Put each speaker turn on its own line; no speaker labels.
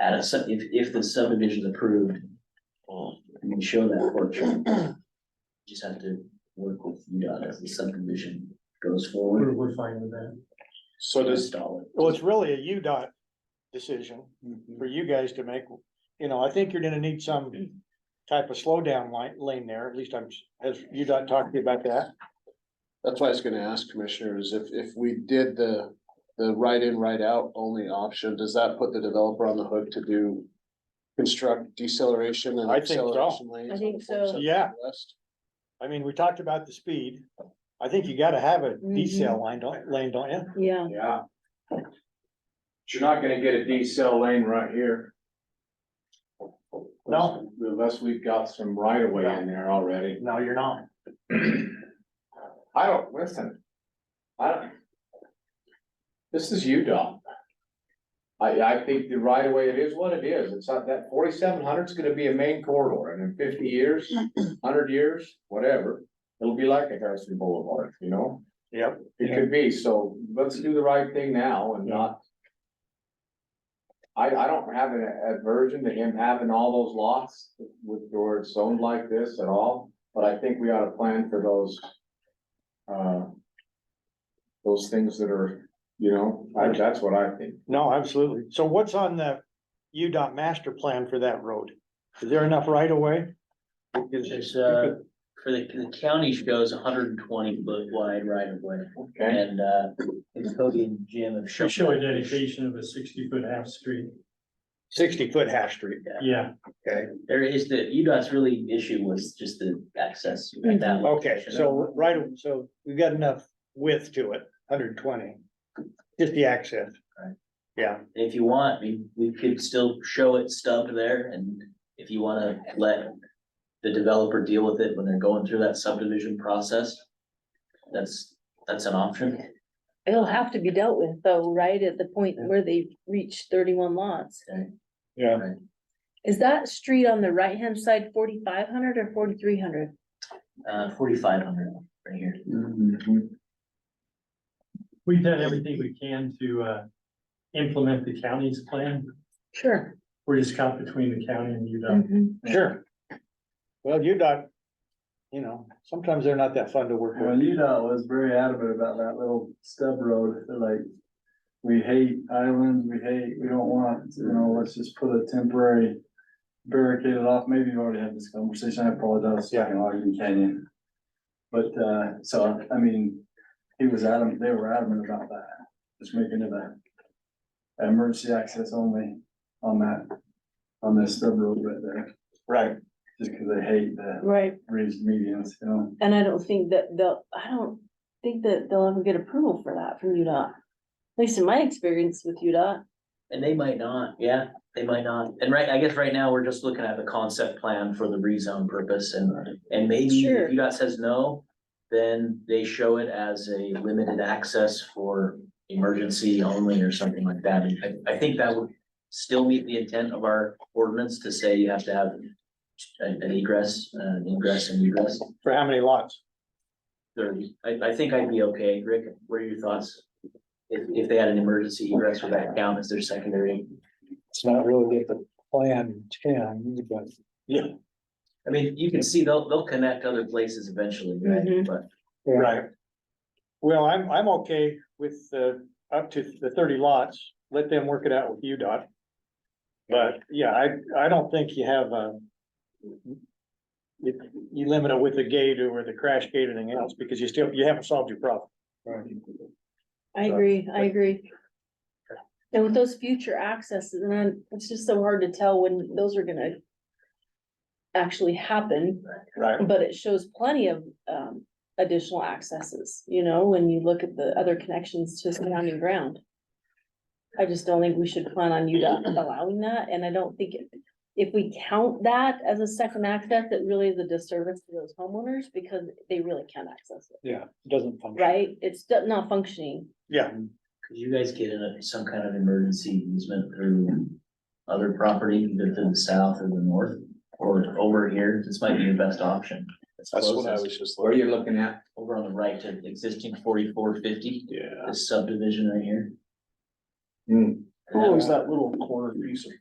at a, sub- if, if the subdivision's approved, um, you can show that porch. You Just have to work with UDOT as the subdivision goes forward.
We're, we're fine with that.
So does,
Install it.
Well, it's really a UDOT decision for you guys to make. You know, I think you're gonna need some type of slowdown line, lane there. At least I'm, has UDOT talked to you about that?
that's why I was gonna ask commissioners, if, if we did the, the right in, right out only option, does that put the developer on the hook to do? Construct deceleration and
I think so.
acceleration lanes?
I think
on the
so.
47
Yeah.
west?
I mean, we talked about the speed. I think you gotta have a decel line, don't, lane, don't you?
Yeah,
Yeah. But you're not gonna get a D cell lane right here.
No.
Unless we've got some right of way in there already.
No, you're not.
I don't, listen. I don't. This is UDOT. I, I think the right of way, it is what it is. It's not that forty-seven hundred's gonna be a main corridor and in fifty years, hundred years, whatever. It'll be like a Harrison Boulevard, you know?
Yep.
It could be, so let's do the right thing now and not. I, I don't have an aversion to him having all those lots with, where it's zoned like this at all, but I think we ought to plan for those. Uh. Those things that are, you know, I, that's what I think.
No, absolutely. So what's on the UDOT master plan for that road? Is there enough right of way?
There's, uh, for the, the county shows hundred and twenty foot wide right of way,
Okay,
and, uh, and Cody and Jim have
We
shown.
show a dedication of a sixty foot half street.
Sixty foot half street.
Yeah,
There is the, UDOT's really issue was just the access at that
Mm-hmm. Okay,
location.
so right, so we've got enough width to it, hundred and twenty, just the access.
Right.
Yeah,
If you want, we, we could still show it stubbed there, and if you wanna let the developer deal with it when they're going through that subdivision process, that's, that's an option.
it'll have to be dealt with though, right at the point where they reach thirty-one lots.
yeah.
Is that street on the right-hand side forty-five hundred or forty-three hundred?
Uh, forty-five hundred right here.
we've done everything we can to, uh, implement the county's plan.
Sure.
We're just caught between the county and UDOT.
Mhm.
Sure. Well, UDOT, you know, sometimes they're not that fun to work
Well,
with.
UDOT uh, was very adamant about that little stub road, they're like, we hate islands, we hate, we don't want, you know, let's just put a temporary barricade it off, maybe you've already had this conversation, I apologize, yeah, in Ogden Canyon. But, uh, so, I mean, he was adamant, they were adamant about that, just making it a emergency access only on that, on this stub road right there,
Right.
just because they hate the
Right,
raised medians, you know?
and I don't think that they'll, I don't think that they'll ever get approval for that from UDOT. At least in my experience with UDOT.
And they might not, yeah, they might not. And right, I guess right now, we're just looking at the concept plan for the rezone purpose and, and maybe
Sure.
if UDOT says no, then they show it as a limited access for emergency only or something like that. And I, I think that would still meet the intent of our ordinance to say you have to have an egress, uh, an ingress and egress
For how many lots?
thirty. I, I think I'd be okay. Rick, what are your thoughts? If, if they had an emergency egress for that count as their secondary
It's not really what the plan ten, but.
I mean, you can see they'll, they'll connect other places eventually, right?
Mhm.
But
Right. Well, I'm, I'm okay with, uh, up to the thirty lots, let them work it out with UDOT. But, yeah, I, I don't think you have a. You, you limit it with the gate or the crash gate or anything else, because you still, you haven't solved your problem.
I agree, I agree. And with those future accesses, and then it's just so hard to tell when those are gonna actually happen.
Right.
But it shows plenty of um additional accesses, you know, when you look at the other connections to surrounding ground. I just don't think we should plan on UDOT allowing that, and I don't think it- if we count that as a second access, it really is a disservice to those homeowners because they really can't access it,
Yeah, it doesn't function.
right? It's not functioning.
Yeah,
could you guys get in a- some kind of emergency easement through other property, either to the south or the north? Or over here, this might be your best option. It's
That's what I
closest.
was just.
where are you looking at?
Over on the right to the existing forty-four fifty,
Yeah.
this subdivision right here.
Hmm.
What was that little corner piece of